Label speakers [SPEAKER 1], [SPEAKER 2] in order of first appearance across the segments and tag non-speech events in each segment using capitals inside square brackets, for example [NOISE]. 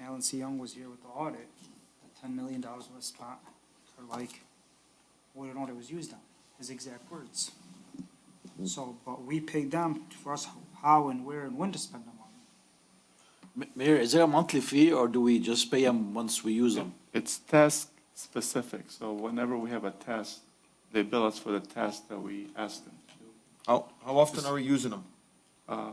[SPEAKER 1] Alan C. Young was here with the audit, that ten million dollars was spot for like what an audit was used on, his exact words. So, but we paid them for us how and where and when to spend the money.
[SPEAKER 2] Ma- Mayor, is there a monthly fee or do we just pay them once we use them?
[SPEAKER 3] It's task specific, so whenever we have a test, they bill us for the task that we ask them. to do.
[SPEAKER 4] How, how often are we using them?
[SPEAKER 3] Uh,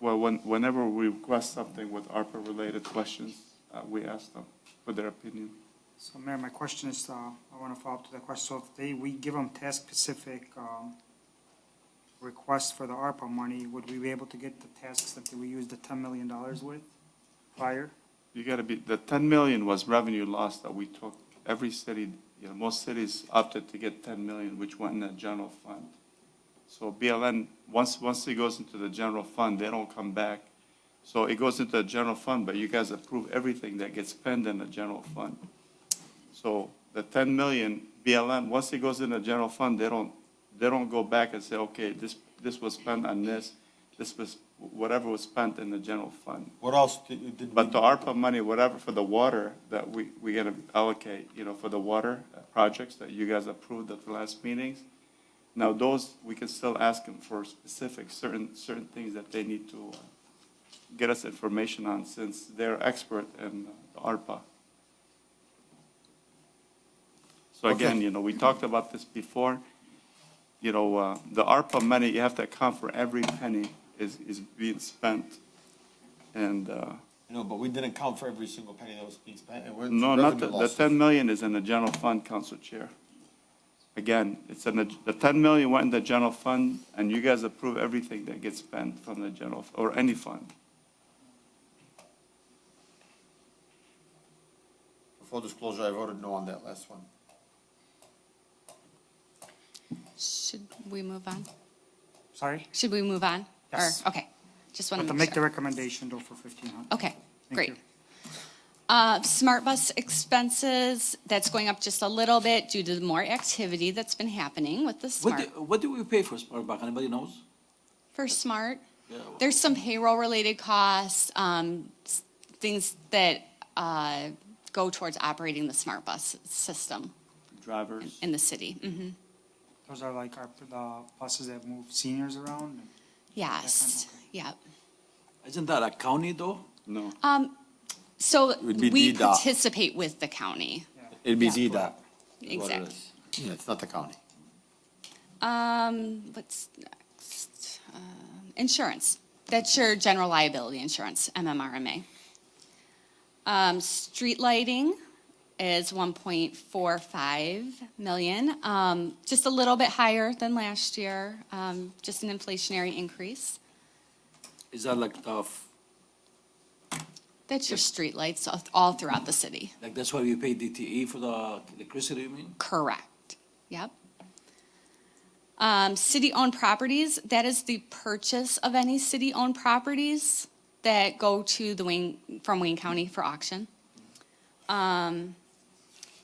[SPEAKER 3] Well, when, whenever we request something with ARPA-related questions, uh, we ask them for their opinion.
[SPEAKER 1] So Mayor, my question is, uh, I want to follow up to that question. So if they, we give them task-specific, um, requests for the ARPA money, would we be able to get the tasks that we used the ten million dollars with prior?
[SPEAKER 3] You gotta be, the ten million was revenue loss that we took. Every city, you know, most cities opted to get ten million, which went in the general fund. So BLN, once, once it goes into the general fund, they don't come back. So it goes into the general fund, but you guys approve everything that gets spent in the general fund. So the ten million BLN, once it goes in the general fund, they don't, they don't go back and say, okay, this, this was spent on this, this was, whatever was spent in the general fund.
[SPEAKER 4] What else did, did we,
[SPEAKER 3] But the ARPA money, whatever, for the water that we, we gonna allocate, you know, for the water projects that you guys approved at the last meetings. Now, those, we can still ask them for specific, certain, certain things that they need to uh, get us information on since they're expert in the ARPA. So again,
[SPEAKER 4] Okay.
[SPEAKER 3] you know, we talked about this before. You know, uh, the ARPA money, you have to account for every penny is, is being spent. And, uh,
[SPEAKER 4] no, but we didn't count for every single penny that was being spent. and we're-
[SPEAKER 3] no, not,
[SPEAKER 4] revenue
[SPEAKER 3] the the
[SPEAKER 4] losses.
[SPEAKER 3] 10 million is in the general fund, Council Chair. Again, it's in the, the 10 million went in the general fund, and you guys approve everything that gets spent from the general, or any fund.
[SPEAKER 4] Full disclosure, I voted no on that last one.
[SPEAKER 5] Should we move on?
[SPEAKER 1] Sorry?
[SPEAKER 5] Should we move on? Or-
[SPEAKER 1] Yes.
[SPEAKER 5] Okay, just want
[SPEAKER 1] But
[SPEAKER 5] to
[SPEAKER 1] to
[SPEAKER 5] make
[SPEAKER 1] make the
[SPEAKER 5] sure.
[SPEAKER 1] recommendation though for fifteen hundred.
[SPEAKER 5] Okay, Oh, great.
[SPEAKER 1] you.
[SPEAKER 5] Uh, Smart bus expenses, that's going up just a little bit due to the more activity that's been happening with the
[SPEAKER 2] What,
[SPEAKER 5] smart.
[SPEAKER 2] do- what do we pay for Sparkbuck? Anybody knows?
[SPEAKER 5] For smart,
[SPEAKER 2] Yeah.
[SPEAKER 5] there's some payroll-related costs, um, s- things that uh, go towards operating the smart bus system
[SPEAKER 3] Drivers,
[SPEAKER 5] in the city. Mhm.
[SPEAKER 1] Those are like our, the buses that move seniors around.
[SPEAKER 5] Yes, yeah.
[SPEAKER 2] Isn't that a county though?
[SPEAKER 3] no.
[SPEAKER 5] So
[SPEAKER 4] would be
[SPEAKER 5] we
[SPEAKER 4] DDOT.
[SPEAKER 5] participate with the county,
[SPEAKER 4] It'd
[SPEAKER 5] be Yeah.
[SPEAKER 2] is
[SPEAKER 4] dot.
[SPEAKER 2] what it
[SPEAKER 5] exactly.
[SPEAKER 2] is.
[SPEAKER 4] Yeah, it's not the county.
[SPEAKER 5] Um, what's next? Um, Insurance. That's your general liability insurance, MMRMA. Um, street lighting is one point four five million, um, just a little bit higher than last year, um, just an inflationary increase.
[SPEAKER 2] Is that like the, f-
[SPEAKER 5] That's your street lights all- all throughout the city.
[SPEAKER 2] like that's why we pay DTE for the electricity, you mean?
[SPEAKER 5] Correct. Yep. Um, city-owned properties, that is the purchase of any city-owned properties that go to the Wayne, from Wayne County for auction. Um,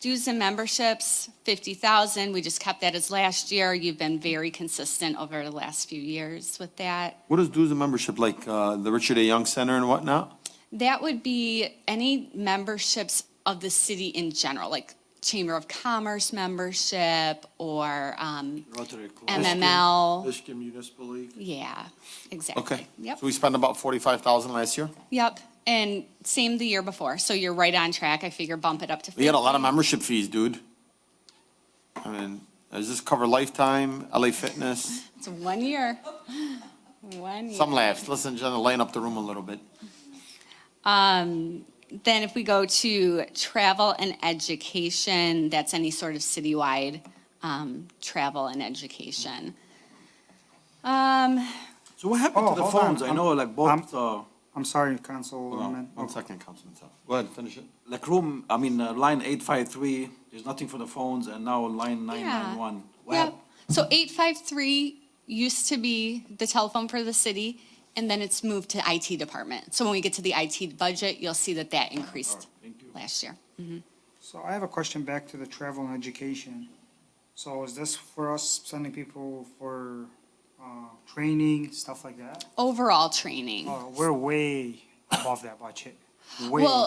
[SPEAKER 5] dues and memberships, fifty thousand. We just kept that as last year. You've been very consistent over the last few years with that.
[SPEAKER 4] What is dues and membership, like, uh, the Richard A. Young Center and whatnot?
[SPEAKER 5] That would be any memberships of the city in general, like Chamber of Commerce membership or, um,
[SPEAKER 2] Rotary Club.
[SPEAKER 5] MML.
[SPEAKER 6] Michigan Municipal League.
[SPEAKER 5] Yeah, exactly.
[SPEAKER 4] Okay.
[SPEAKER 5] Yep,
[SPEAKER 4] So we spent about forty-five thousand last year?
[SPEAKER 5] yep. And same the year before. So you're right on track. I figure bump it up to.
[SPEAKER 4] We got a lot of
[SPEAKER 5] 50.
[SPEAKER 4] membership fees, dude. I mean, does this cover lifetime, LA Fitness?
[SPEAKER 5] It's one year. [GASPS] One year.
[SPEAKER 4] Some laughs. Listen, Jenna, lighten up the room a little bit.
[SPEAKER 5] Um, then if we go to travel and education, that's any sort of citywide, um, travel and education. Um,
[SPEAKER 2] So what happened
[SPEAKER 1] Oh,
[SPEAKER 2] to the
[SPEAKER 1] hold on.
[SPEAKER 2] phones? I know like both, uh, Oh,
[SPEAKER 1] I'm sorry, Councilman.
[SPEAKER 4] One second, Councilman Saab. Oh. Go ahead, finish it.
[SPEAKER 2] like room, I mean, uh, line eight five three, there's nothing for the phones and now line nine nine one. What
[SPEAKER 5] Yep.
[SPEAKER 2] happened?
[SPEAKER 5] So eight five three used to be the telephone for the city, and then it's moved to IT department. So when we get to the IT budget, you'll see that that increased
[SPEAKER 2] thank you.
[SPEAKER 5] last year.
[SPEAKER 1] So I have a question back to the travel and education. So is this for us sending people for, uh, training, stuff like that?
[SPEAKER 5] Overall training,
[SPEAKER 1] Oh, we're way above that budget.
[SPEAKER 7] way.
[SPEAKER 1] Well,